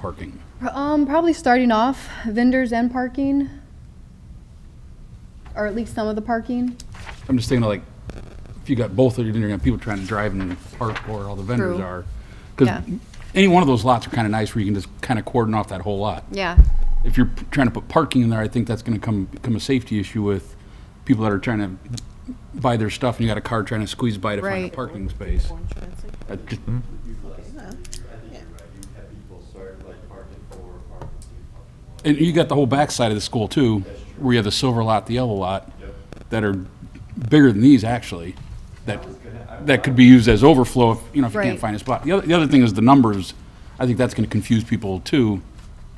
parking? Um, probably starting off vendors and parking, or at least some of the parking. I'm just thinking of like, if you got both of you, then you're gonna have people trying to drive and park where all the vendors True. are. Because Yeah. any one of those lots are kind of nice where you can just kind of cordon off that whole lot. Yeah, If you're p- trying to put parking in there, I think that's gonna come, become a safety issue with people that are trying to buy their stuff and you got a car trying to squeeze by to find Right. a parking space. I just- You have people start like parking four, parking two, And you got the whole backside of the school too, where you have the silver lot, the yellow lot, that are bigger than these actually, that, that could be used as overflow, if you know, if you can't Right. find a spot. The other, the other thing is the numbers, I think that's gonna confuse people too,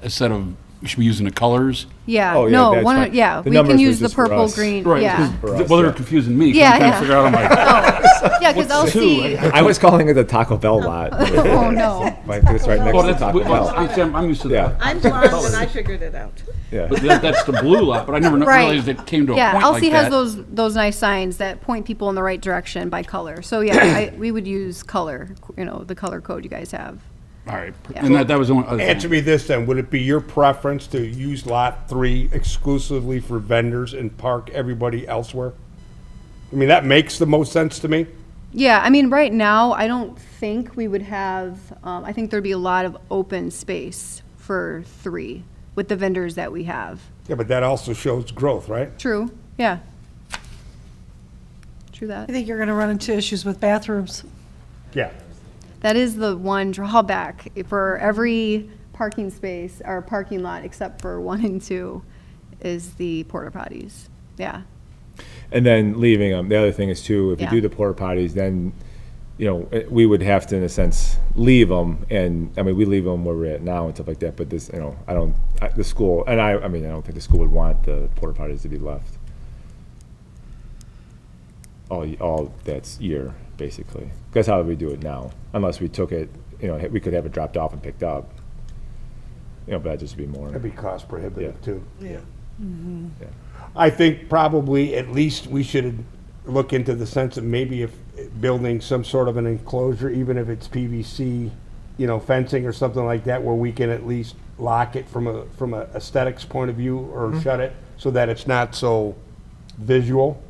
instead of, we should be using the colors. yeah, Oh, yeah, no, that's one, fine. of- yeah, The we can numbers use are the just for purple, us. green, Right, yeah. 'cause For us, Well, they're yeah. confusing me, 'cause Yeah, I'm trying yeah. to figure out, I'm like, Yeah, because I'll see, I was calling it the Taco Bell lot. oh, no, Like it's right next well, to that's, Taco well, Bell. I- I'm, I'm used to Yeah. that. I'm blind and I figured it out. Yeah. But that- that's the blue lot, but I never kno- Right. realized it came to a point like yeah, that. I'll see has those, those nice signs that point people in the right direction by color. So, yeah, I, we would use color, you know, the color code you guys have. All right, and that, that was the only other thing. Answer me this then, would it be your preference to use lot three exclusively for vendors and park everybody elsewhere? I mean, that makes the most sense to me. Yeah, I mean, right now, I don't think we would have, um, I think there'd be a lot of open space for three with the vendors that we have. Yeah, but that also shows growth, right? True, yeah. True that. I think you're going to run into issues with bathrooms. Yeah. That is the one drawback for every parking space or parking lot except for one and two is the porta potties. Yeah, And then leaving them. The other thing is too, if you Yeah. do the porta potties, then, you know, eh, we would have to, in a sense, leave them. And, I mean, we leave them where we're at now and stuff like that, but this, you know, I don't, I- the school, and I, I mean, I don't think the school would want the porta potties to be left. All, y- all that's year, basically. That's how we do it now, unless we took it, you know, we could have it dropped off and picked up. You know, but that'd just be more. That'd be cost prohibitive Yeah. too. Yeah. I think probably at least we should look into the sense of maybe if building some sort of an enclosure, even if it's PVC, you know, fencing or something like that, where we can at least lock it from a, from a aesthetics point of view or shut it so that it's not so visual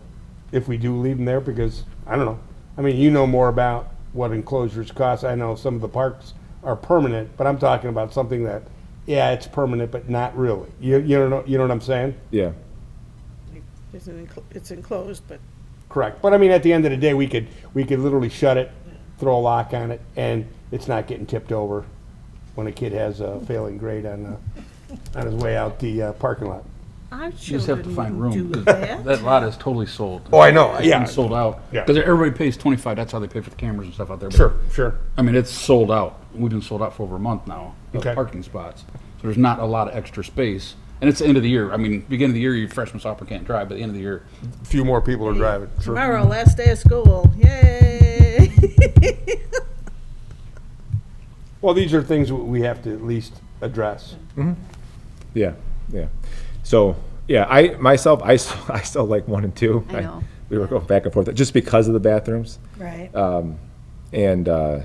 if we do leave them there, because, I don't know. I mean, you know more about what enclosures cost. I know some of the parks are permanent, but I'm talking about something that, yeah, it's permanent, but not really. You, you know, you know what I'm saying? Yeah. It's an enclo- It's enclosed, but Correct, but I mean, at the end of the day, we could, we could literally shut it, throw a lock on it, and it's not getting tipped over when a kid has a failing grade on, uh, on his way out the uh, parking lot. our You just have to children find wouldn't room. do 'cause that. That lot is totally sold. Oh, I know, yeah. It's sold out. Yeah. Because everybody pays twenty-five, that's how they pay for the cameras and stuff out there. but- Sure, sure. I mean, it's sold out. We've been sold out for over a month now, of Okay. parking spots. So there's not a lot of extra space. And it's the end of the year. I mean, beginning of the year, your freshman sophomore can't drive, but the end of the year, A Few more people are driving. Tomorrow, last day of school, yay! Well, these are things we have to at least address. Yeah, yeah. So, yeah, I, myself, I, s- I still like one and two. I know. We were going back and forth, just because of the bathrooms Um, Right. and, uh,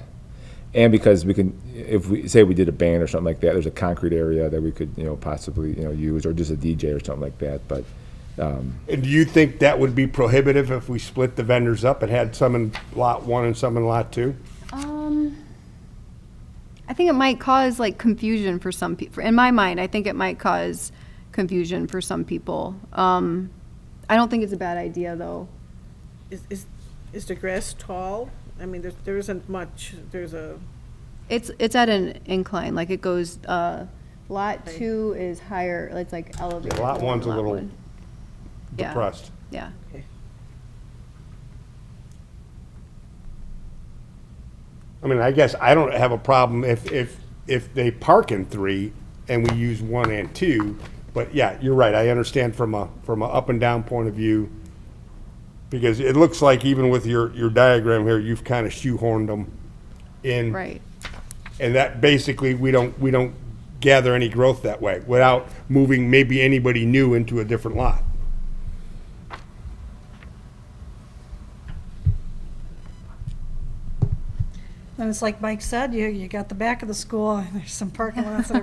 and because we can, if we, say we did a band or something like that, there's a concrete area that we could, you know, possibly, you know, use, or just a DJ or something like that, but, And do you think that would be prohibitive if we split the vendors up and had some in lot one and some in lot two? Um, I think it might cause like confusion for some people. In my mind, I think it might cause confusion for some people. Um, I don't think it's a bad idea though. Is, is, is the grass tall? I mean, there, there isn't much, there's a, It's, it's at an incline, like it goes, uh, lot two is higher, it's like elevated. lot more one's than a lot little one. Yeah, Depressed. Yeah, I mean, I guess I don't have a problem if, if, if they park in three and we use one and two. But yeah, you're right. I understand from a, from a up and down point of view. Because it looks like even with your, your diagram here, you've kind of shoehorned them in. right, And that basically, we don't, we don't gather any growth that way without moving maybe anybody new into a different lot. I And it's like Mike said, you, you got the back of the school, and there's some parking lots that are